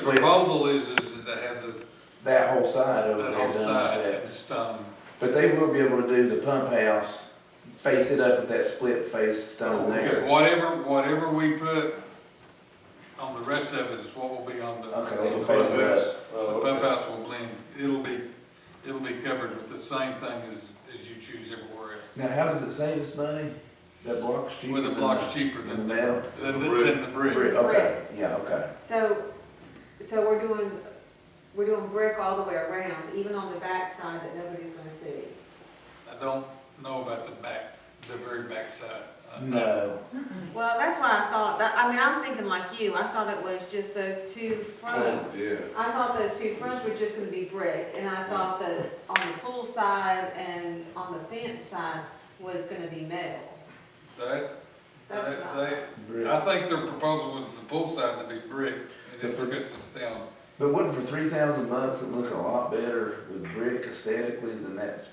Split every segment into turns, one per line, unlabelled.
clear
Proposal is, is that they have the,
that whole side over
that
there done
whole
like
side
that.
in stone.
But they will be able to do the pump house, face it up with that split face
Oh,
stone there.
Whatever, whatever we put on the rest of it is what will be on the.
Okay, we'll
the
close
pump house.
that.
Oh,
The pump house will blend, it'll be, it'll be covered with the same thing as, as you choose everywhere else.
Now, how does it save us money? That block's cheaper
With the
than
blocks cheaper
than
than, the-
metal?
than, the- than the
brick.
brick.
Okay, yeah, okay.
So, so we're doing, we're doing brick all the way around, even on the back side that nobody's gonna see.
I don't know about the back, the very back side. I-
No,
Well, that's why I thought, that, I mean, I'm thinking like you, I thought it was just those two front.
Oh, Yeah.
I thought those two fronts were just gonna be brick, and I thought that on the pool side and on the fence side was gonna be metal.
They,
That's what I thought.
they, they,
brick.
I think their proposal was the pool side to be brick, and it
The fir-
cuts us down.
But wouldn't for three thousand bucks, it look a lot better with brick aesthetically than that s-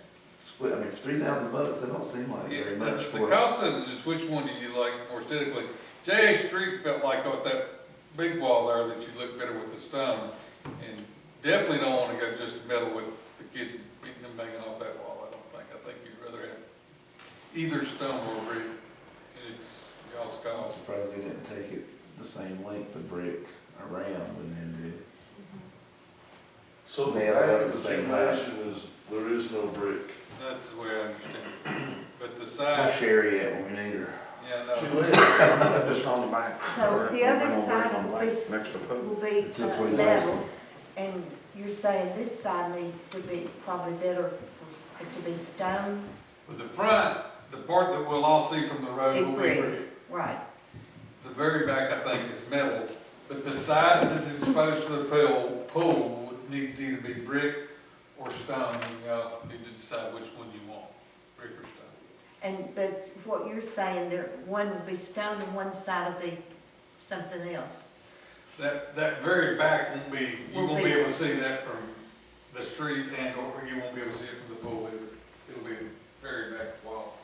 split? I mean, for three thousand bucks, it don't seem like
Yeah,
very
the-
much
The
for.
cost of it is which one do you like more aesthetically? J.A. Street felt like with that big wall there that you look better with the stone. And definitely don't wanna go just metal with the kids beating them banging off that wall, I don't think. I think you'd rather have either stone or brick. And it's y'all's
I'm
call.
surprised they didn't take it the same length of brick around and then
So the
Nailed
back
it
of
the
the
same height.
gymnasium is, there is no brick.
That's the way I understand it. But the
do. We'll
side,
share it when we need her.
yeah,
She
no,
lives.
Just on the back.
So the other side of this-
Next to Pope.
will be
That's
uh,
what he's
level,
asking.
and you're saying this side needs to be probably better for it to be stone,
but the front, the part that we'll all see from the road
Is
will be
brick.
brick.
right?
The very back, I think, is metal, but the side that's exposed to the pool, pool would- needs to either be brick or stone, and y'all need to decide which one you want, brick or stone.
And, but what you're saying, there, one will be stone and one side will be something else.
That, that very back won't be, you
Will
won't be
be-
able to see that from the street and or you won't be able to see it from the pool either. It'll be the very back wall.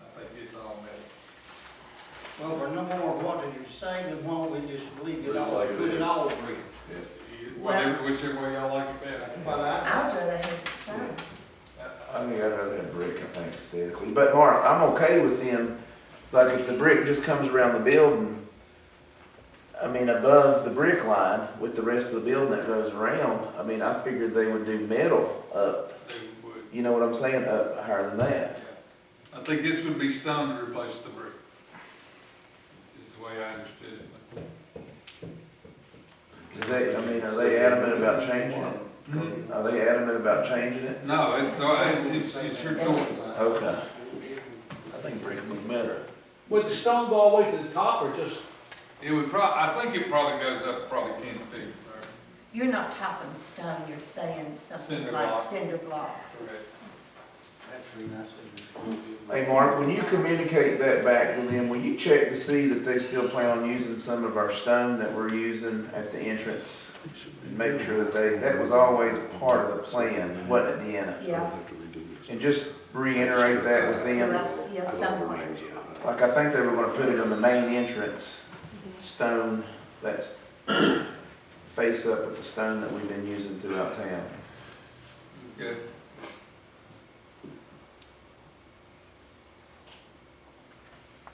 I think it's all metal.
Well, for no more water you're saving, why don't we just leave it all,
Leave it like it
put
is.
it all brick?
Whatever, whichever way y'all like it better.
But I,
I'd rather have stone.
I-
I
I-
think I'd rather have brick, I think, aesthetically. But Mark, I'm okay with them, like if the brick just comes around the building, I mean, above the brick line with the rest of the building that goes around, I mean, I figured they would do metal up,
they would,
you know what I'm saying, up higher than that.
yeah. I think this would be stone to replace the brick. This is the way I understood it.
Is they, I mean, are they adamant about changing it? Are they adamant about changing it?
No, it's, uh, it's, it's, it's your choice.
Okay. I think brick would be better.
Would the stone go all the way to the top or just,
It would prob, I think it probably goes up probably ten feet. or-
You're not topping stone, you're saying
Cinder
something
block.
like cinder block.
that's the reason I said. we-
Hey, Mark, when you communicate that back to them, will you check to see that they still plan on using some of our stone that we're using at the entrance? And make sure that they, that was always part of the plan, wasn't it, Deanna?
Yeah,
And just reiterate that with them,
right, yeah, somewhere.
like I think they were gonna put it on the main entrance, Mm-hmm. stone that's face up with the stone that we've been using throughout town.
Okay.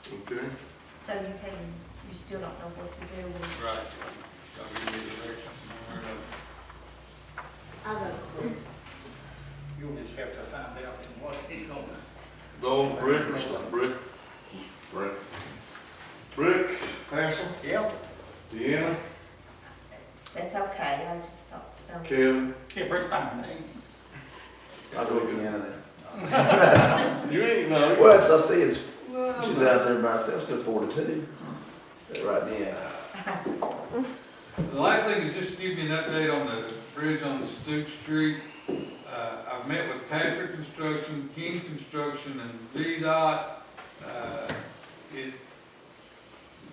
Okay.
So you can, you still don't know what to do with.
Right. I'll give you the direction. one way or another.
I vote brick.
You'll just have to find out what it's gonna
No brick or stone, brick? Brick. Brick, Hansel,
be. Yeah,
Deanna,
That's okay, I just thought stone.
Kevin,
yeah, brick's fine,
I'll go with Deanna then.
you ain't know.
Well, as I see, it's, she's out there by herself, still forty-two, right now.
The last thing is just to give you an update on the bridge on Stuke Street. Uh, I've met with Patrick Construction, King Construction, and VDOT. Uh, it,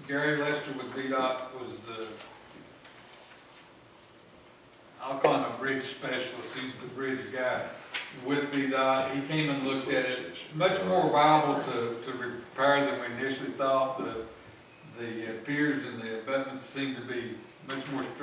Gary Lester with VDOT was the, I'll call him a bridge specialist, he's the bridge guy with VDOT. He came and looked at it, much more viable to, to repair than we initially thought. The, the piers and the abutments seem to be much more strict